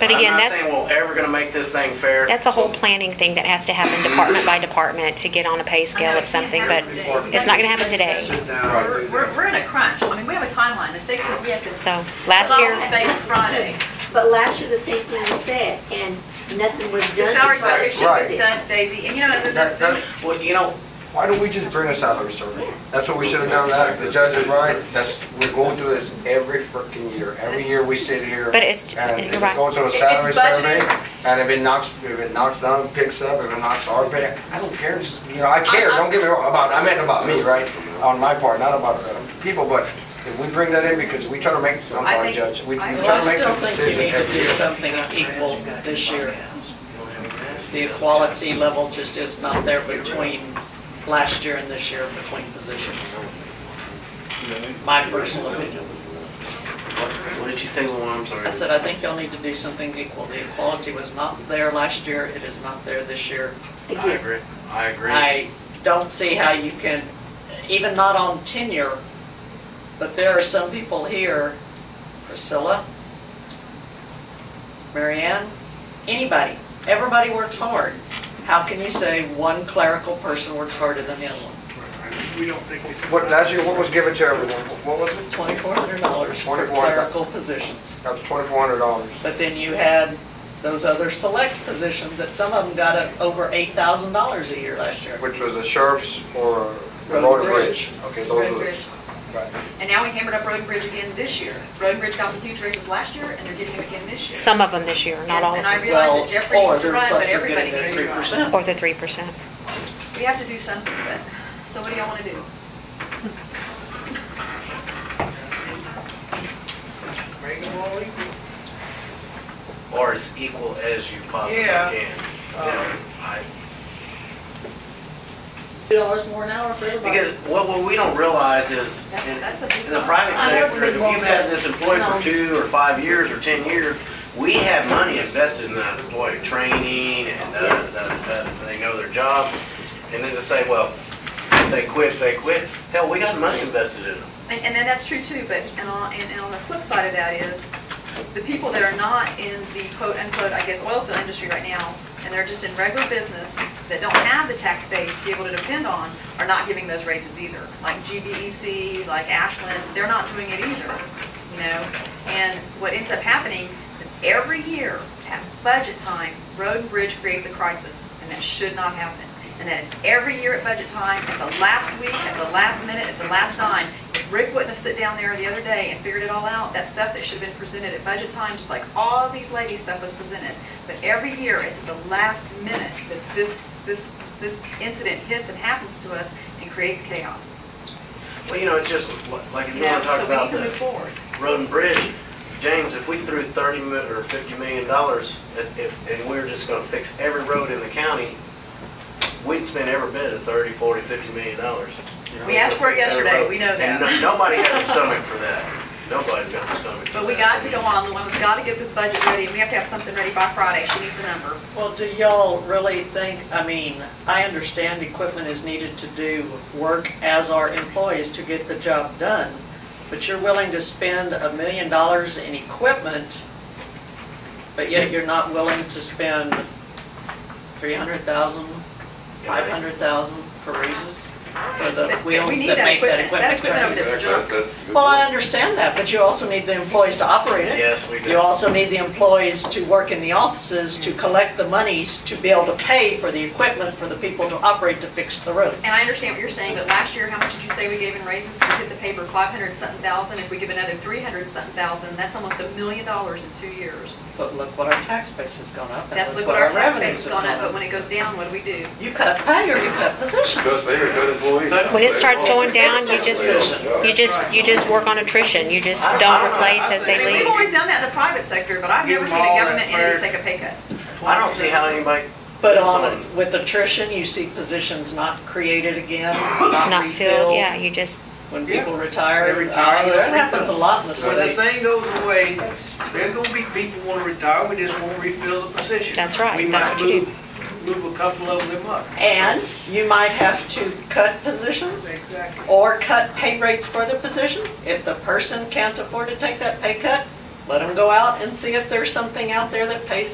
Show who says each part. Speaker 1: But again,
Speaker 2: I'm not
Speaker 1: that's,
Speaker 2: saying we're ever going to make this thing fair.
Speaker 1: that's a whole planning thing that has to happen department by department to get on a pay scale of something, but it's not gonna happen today.
Speaker 3: Sit down.
Speaker 4: We're, we're we're in a crunch. I mean, we have a timeline. The state says we have to.
Speaker 1: So, last year-
Speaker 4: Resolve this by Friday.
Speaker 5: But last year, the same thing was said, and nothing was done.
Speaker 4: The salary survey should
Speaker 3: Right.
Speaker 4: be done, Daisy, and you know, the,
Speaker 3: That-
Speaker 4: the,
Speaker 3: that-
Speaker 2: Well, you know,
Speaker 3: Why don't we just bring a salary survey? That's what we should have done, that, the judge is right, that's, we're going through this every freaking year, every year we sit here.
Speaker 1: But it's-
Speaker 3: And
Speaker 1: you're
Speaker 3: it's
Speaker 1: right.
Speaker 3: going through a
Speaker 4: It's
Speaker 3: salary survey,
Speaker 4: budgeted.
Speaker 3: and if it knocks, if it knocks down, picks up, if it knocks our pay, I don't care, just, you know, I care, don't get me wrong, about, I meant about me, right? On my part, not about the people, but if we bring that in, because we try to make, I'm
Speaker 4: I
Speaker 3: sorry,
Speaker 4: think-
Speaker 3: Judge, we we
Speaker 4: I-
Speaker 6: Well,
Speaker 3: try to
Speaker 6: I
Speaker 3: make
Speaker 6: still
Speaker 3: this
Speaker 6: think you
Speaker 3: decision
Speaker 6: need to
Speaker 3: every
Speaker 6: do
Speaker 3: year.
Speaker 6: something equal this year. The equality level just is not there between last year and this year between positions. My personal opinion.
Speaker 2: what did you say, Luan? I'm sorry.
Speaker 6: I said, I think y'all need to do something equal. The equality was not there last year, it is not there this year.
Speaker 2: I agree. I agree.
Speaker 6: I don't see how you can, even not on tenure, but there are some people here, Priscilla, Marianne, anybody, everybody works hard. How can you say one clerical person works harder than the other one?
Speaker 7: We don't think we.
Speaker 3: What, last year, what was given to everyone, what was it?
Speaker 6: Twenty-four hundred dollars for
Speaker 3: 24.
Speaker 6: clerical positions.
Speaker 3: That was twenty-four hundred dollars.
Speaker 6: But then you had those other select positions that some of them got up over eight thousand dollars a year last year.
Speaker 3: Which was the sheriff's or the
Speaker 6: Road
Speaker 3: road and
Speaker 6: and
Speaker 3: bridge? Okay, those
Speaker 4: Road
Speaker 3: were,
Speaker 4: Bridge.
Speaker 3: right.
Speaker 4: And now we hammered up Road and Bridge again this year. Road and Bridge got the huge raises last year, and they're getting them again this year.
Speaker 1: Some of them this year, not
Speaker 4: And-
Speaker 1: all of
Speaker 4: And I
Speaker 1: them,
Speaker 6: Well,
Speaker 4: realize that Jeffrey needs to
Speaker 6: or
Speaker 4: run,
Speaker 6: plus
Speaker 4: but
Speaker 6: they're
Speaker 4: everybody
Speaker 6: getting their
Speaker 4: needs to run.
Speaker 6: 3%.
Speaker 1: or the three percent.
Speaker 4: We have to do something, but, so what do y'all want to do?
Speaker 2: Or as equal as you possibly
Speaker 7: Yeah. Um,
Speaker 2: can. You know, I-
Speaker 8: Two dollars more an hour for everybody.
Speaker 2: Because what, what we don't realize is, in,
Speaker 4: That's- that's a big
Speaker 2: in the
Speaker 4: one.
Speaker 2: private
Speaker 8: I know
Speaker 2: sector,
Speaker 8: we
Speaker 2: if you've
Speaker 8: won't
Speaker 2: had
Speaker 8: get-
Speaker 2: this employee for
Speaker 8: No.
Speaker 2: two or five years or ten years, we have money invested in that employee, training and, uh,
Speaker 8: Yes.
Speaker 2: uh, uh, they know their job. And then to say, well, if they quit, they quit. Hell, we got money invested in them.
Speaker 4: And, and then that's true too, but, and on, and and on the flip side of that is, the people that are not in the quote unquote, I guess, oil field industry right now, and they're just in regular business, that don't have the tax base to be able to depend on, are not giving those raises either. Like GBEC, like Ashland, they're not doing it either, you know? And what ends up happening is every year at budget time, road and bridge creates a crisis, and that should not happen. And that is every year at budget time, at the last week, at the last minute, at the last dime. If Rick wouldn't have sit down there the other day and figured it all out, that stuff that should have been presented at budget time, just like all these ladies' stuff was presented. But every year, it's at the last minute that this, this, this incident hits and happens to us and creates chaos.
Speaker 2: Well, you know, it's just like if you
Speaker 4: Yeah,
Speaker 2: want to talk
Speaker 4: so we
Speaker 2: about
Speaker 4: need to move
Speaker 2: the
Speaker 4: forward.
Speaker 2: road and bridge, James, if we threw thirty mi- or fifty million dollars, if- if- and we we're just gonna fix every road in the county, we'd spend every bit of thirty, forty, fifty million dollars.
Speaker 4: We asked for it
Speaker 2: Fix every
Speaker 4: yesterday,
Speaker 2: road.
Speaker 4: we know
Speaker 2: And
Speaker 4: that.
Speaker 2: no- nobody has a stomach for that. Nobody's got a stomach for that.
Speaker 4: But we got to go on, Luana's got to get this budget ready, and we have to have something ready by Friday. She needs a number.
Speaker 6: Well, do y'all really think, I mean, I understand equipment is needed to do work as our employees to get the job done, but you're willing to spend a million dollars in equipment, but yet you're not willing to spend three hundred thousand, five hundred thousand for raises for the
Speaker 4: But- but
Speaker 6: wheels
Speaker 4: we need
Speaker 6: that
Speaker 4: that
Speaker 6: make that
Speaker 4: equipment- that
Speaker 6: equipment
Speaker 4: equipment over
Speaker 6: turn.
Speaker 4: there.
Speaker 6: Well, I understand that, but you also need the employees to operate it.
Speaker 2: Yes, we do.
Speaker 6: You also need the employees to work in the offices to collect the monies to be able to pay for the equipment for the people to operate to fix the roads.
Speaker 4: And I understand what you're saying, but last year, how much did you say we gave in raises? We hit the paper five hundred something thousand, if we give another three hundred something thousand, that's almost a million dollars in two years.
Speaker 6: But look what our tax base has gone up
Speaker 4: That's,
Speaker 6: and
Speaker 4: look
Speaker 6: look
Speaker 4: what our tax base
Speaker 6: revenues
Speaker 4: has
Speaker 6: have
Speaker 4: gone up, but
Speaker 6: gone up.
Speaker 4: when it goes down, what do we do?
Speaker 6: You cut pay or you cut
Speaker 9: Because
Speaker 6: positions.
Speaker 9: they are good employees.
Speaker 1: When it starts going down, you
Speaker 6: It's a
Speaker 1: just,
Speaker 6: business decision.
Speaker 1: you just, you just work on attrition, you just don't replace as
Speaker 4: I
Speaker 1: they
Speaker 4: mean, we've
Speaker 1: leave.
Speaker 4: always done that in the private sector, but I've
Speaker 7: Give
Speaker 4: never
Speaker 7: them
Speaker 4: seen a
Speaker 7: all that
Speaker 4: government entity
Speaker 7: fair-
Speaker 4: take a pay cut.
Speaker 2: I don't see how anybody.
Speaker 6: But on, with attrition, you see positions not created again, not
Speaker 1: Not filled, yeah,
Speaker 6: refilled.
Speaker 1: you just,
Speaker 6: When
Speaker 7: Yeah.
Speaker 6: people
Speaker 7: They
Speaker 6: retire, uh,
Speaker 7: retire, they
Speaker 6: that
Speaker 7: don't
Speaker 6: happens a
Speaker 7: refill.
Speaker 6: lot in the
Speaker 7: When the
Speaker 6: city.
Speaker 7: thing goes away, there's gonna be people wanna retire, we just won't refill the position.
Speaker 1: That's right,
Speaker 7: We
Speaker 1: that's
Speaker 7: might
Speaker 1: what you do.
Speaker 7: move- Move a couple of them up.
Speaker 6: And you might have to cut positions.
Speaker 7: Exactly.
Speaker 6: or cut pay rates for the position. If the person can't afford to take that pay cut, Let them go out and see if there's something out there that pays